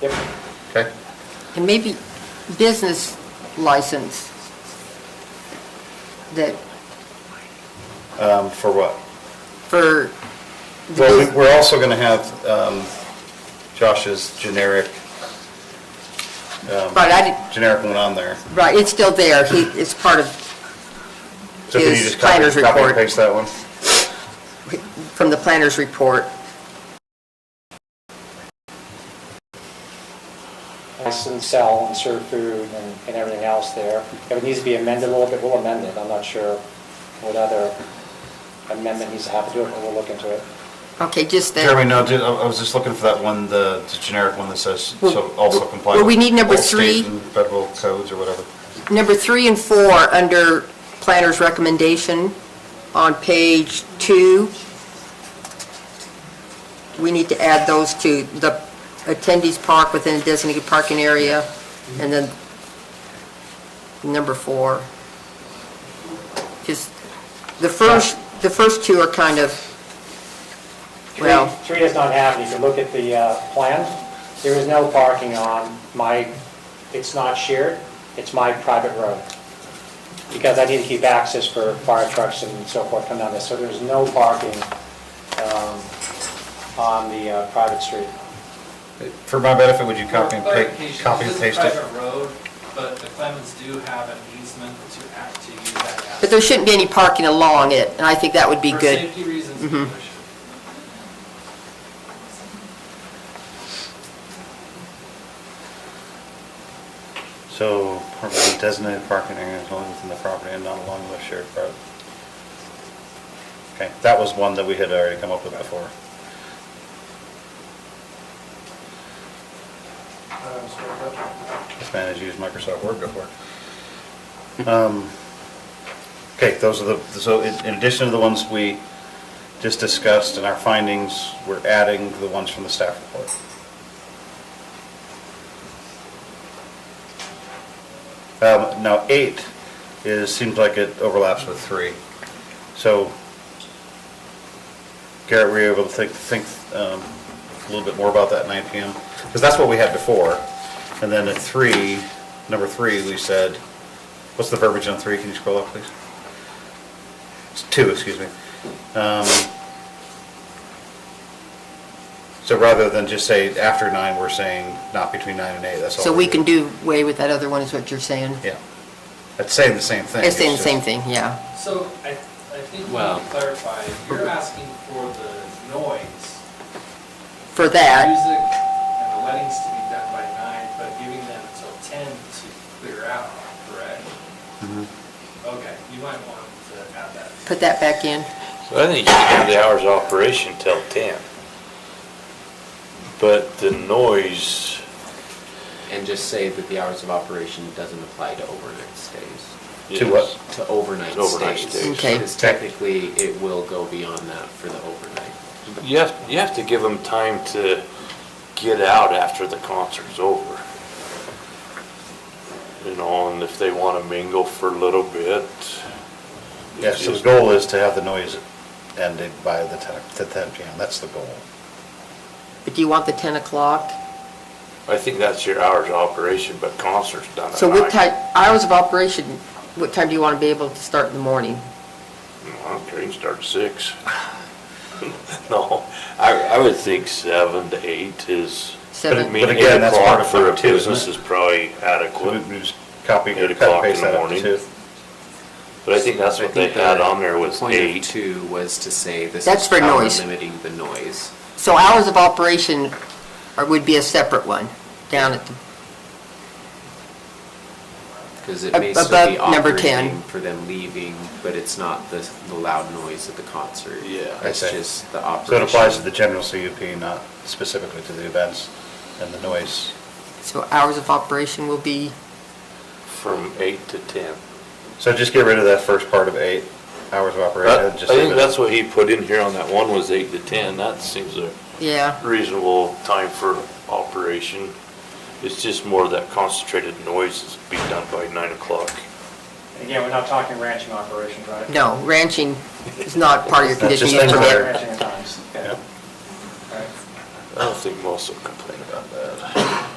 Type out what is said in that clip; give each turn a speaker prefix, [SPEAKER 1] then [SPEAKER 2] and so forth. [SPEAKER 1] Yep.
[SPEAKER 2] Okay.
[SPEAKER 3] And maybe business license that,
[SPEAKER 2] Um, For what?
[SPEAKER 3] for, the
[SPEAKER 2] Well, we-
[SPEAKER 3] bus-
[SPEAKER 2] we're also going to have um, Josh's generic, um,
[SPEAKER 3] right, I did,
[SPEAKER 2] generic one on there.
[SPEAKER 3] right, it's still there, he, it's part of
[SPEAKER 2] So can you
[SPEAKER 3] His
[SPEAKER 2] just copy
[SPEAKER 3] planner's
[SPEAKER 2] copy and
[SPEAKER 3] report.
[SPEAKER 2] paste that one?
[SPEAKER 3] from the planner's report.
[SPEAKER 1] License, sell, and serve food and and everything else there. If it needs to be amended a little bit, we'll amend it. I'm not sure what other amendment needs to happen to it, but we'll look into it.
[SPEAKER 3] Okay, just that.
[SPEAKER 2] Jeremy, no, ju- I I was just looking for that one, the the generic one that says, so also comply
[SPEAKER 3] Well,
[SPEAKER 2] with.
[SPEAKER 3] we need number
[SPEAKER 2] all state
[SPEAKER 3] three.
[SPEAKER 2] and Federal codes or whatever.
[SPEAKER 3] Number three and four, under planner's recommendation on page two, we need to add those to the attendees park within a designated parking area, and then number four. Just, the first, the first two are kind of,
[SPEAKER 1] Three-
[SPEAKER 3] Well-
[SPEAKER 1] Three does not have, it. you can look at the uh, plan, there is no parking on my, it's not shared, it's my private road. Because I need to keep access for fire trucks and so forth coming down this, so there's no parking um, on the uh, private street.
[SPEAKER 2] For my benefit, would you copy and pa-
[SPEAKER 4] Clarification,
[SPEAKER 2] copy and paste
[SPEAKER 4] This
[SPEAKER 2] it?
[SPEAKER 4] is a private road, but the Clemens do have an easement to act to use that asset.
[SPEAKER 3] but there shouldn't be any parking along it, and I think that would be
[SPEAKER 4] For
[SPEAKER 3] good.
[SPEAKER 4] safety reasons, we
[SPEAKER 3] Mhm.
[SPEAKER 4] wish.
[SPEAKER 2] So property designated parking area is only within the property and not along the shared road. Okay, that was one that we had already come up with before. This man has used Microsoft Word before. Um, Okay, those are the, so in in addition to the ones we just discussed in our findings, we're adding the ones from the staff report. Um, Now, eight is, seems like it overlaps with three. So Garrett, were you able to think, think um, a little bit more about that 9 PM? Because that's what we had before. And then at three, number three, we said, what's the verbiage on three? Can you scroll up, please? It's two, excuse me. Um, So rather than just say after nine, we're saying not between nine and eight, that's all.
[SPEAKER 3] So
[SPEAKER 2] we're
[SPEAKER 3] we
[SPEAKER 2] doing.
[SPEAKER 3] can do away with that other one, is what you're saying?
[SPEAKER 2] Yeah. That's saying the same thing.
[SPEAKER 3] It's saying the
[SPEAKER 2] just-
[SPEAKER 3] same thing, yeah.
[SPEAKER 4] So I, I think we
[SPEAKER 5] Well-
[SPEAKER 4] need to clarify, you're asking for the noise,
[SPEAKER 3] For that,
[SPEAKER 4] music and the weddings to be done by nine, but giving them until ten to clear out, correct?
[SPEAKER 2] Mm-hmm.
[SPEAKER 4] Okay, you might want to add that.
[SPEAKER 3] put that back in.
[SPEAKER 5] So I think you can have the hours of operation till ten. But the noise,
[SPEAKER 6] And just say that the hours of operation doesn't apply to overnight stays,
[SPEAKER 2] To what?
[SPEAKER 6] to overnight
[SPEAKER 5] To overnight
[SPEAKER 6] stays.
[SPEAKER 5] stays.
[SPEAKER 3] Okay.
[SPEAKER 6] Because technically, it will go beyond that for the overnight.
[SPEAKER 5] you have, you have to give them time to get out after the concert's over. You know, and if they wanna mingle for a little bit.
[SPEAKER 2] Yeah, so the goal is to have the noise ended by the 10, the 10 PM, that's the goal.
[SPEAKER 3] But do you want the 10 o'clock?
[SPEAKER 5] I think that's your hours of operation, but concert's done at
[SPEAKER 3] So what
[SPEAKER 5] night.
[SPEAKER 3] time, hours of operation, what time do you want to be able to start in the morning?
[SPEAKER 5] Well, train starts six. No, I, I would think seven to eight is.
[SPEAKER 3] Seven.
[SPEAKER 5] I mean,
[SPEAKER 2] But again,
[SPEAKER 5] eight
[SPEAKER 2] that's part
[SPEAKER 5] o'clock
[SPEAKER 2] of
[SPEAKER 5] for a
[SPEAKER 2] it too, isn't
[SPEAKER 5] business
[SPEAKER 2] it?
[SPEAKER 5] is probably
[SPEAKER 2] So we-
[SPEAKER 5] adequate,
[SPEAKER 2] we just copy,
[SPEAKER 5] Eight
[SPEAKER 2] cut and
[SPEAKER 5] o'clock in
[SPEAKER 2] paste
[SPEAKER 5] the
[SPEAKER 2] that up
[SPEAKER 5] morning.
[SPEAKER 2] too.
[SPEAKER 5] but I think that's what
[SPEAKER 6] I
[SPEAKER 5] they
[SPEAKER 6] think
[SPEAKER 5] had
[SPEAKER 6] the
[SPEAKER 5] on there was
[SPEAKER 6] Point of
[SPEAKER 5] eight.
[SPEAKER 6] two was to say this
[SPEAKER 3] That's
[SPEAKER 6] is
[SPEAKER 3] for
[SPEAKER 6] how we're
[SPEAKER 3] noise.
[SPEAKER 6] limiting the noise.
[SPEAKER 3] So hours of operation are- would be a separate one, down at the,
[SPEAKER 6] Because it
[SPEAKER 3] Ab-
[SPEAKER 6] may still be
[SPEAKER 3] above number 10.
[SPEAKER 6] operating for them leaving, but it's not the, the loud noise of the concert.
[SPEAKER 5] Yeah.
[SPEAKER 2] I
[SPEAKER 6] It's
[SPEAKER 2] see.
[SPEAKER 6] just the
[SPEAKER 2] So it
[SPEAKER 6] operation.
[SPEAKER 2] applies to the general CUP, not specifically to the events and the noise.
[SPEAKER 3] so hours of operation will be,
[SPEAKER 5] From eight to ten.
[SPEAKER 2] So just get rid of that first part of eight, hours of operation.
[SPEAKER 5] That- I
[SPEAKER 2] just leave
[SPEAKER 5] think
[SPEAKER 2] it-
[SPEAKER 5] that's what he put in here on that one was eight to ten, that seems a
[SPEAKER 3] yeah,
[SPEAKER 5] reasonable time for operation. It's just more that concentrated noise is be done by nine o'clock.
[SPEAKER 1] And Again, we're not talking ranching operations, right?
[SPEAKER 3] no, ranching is not part of your
[SPEAKER 2] That's just
[SPEAKER 3] conditional use
[SPEAKER 2] under-
[SPEAKER 3] permit.
[SPEAKER 1] Ranching at times, okay.
[SPEAKER 2] Yeah.
[SPEAKER 1] All right.
[SPEAKER 5] I don't think most will complain about that.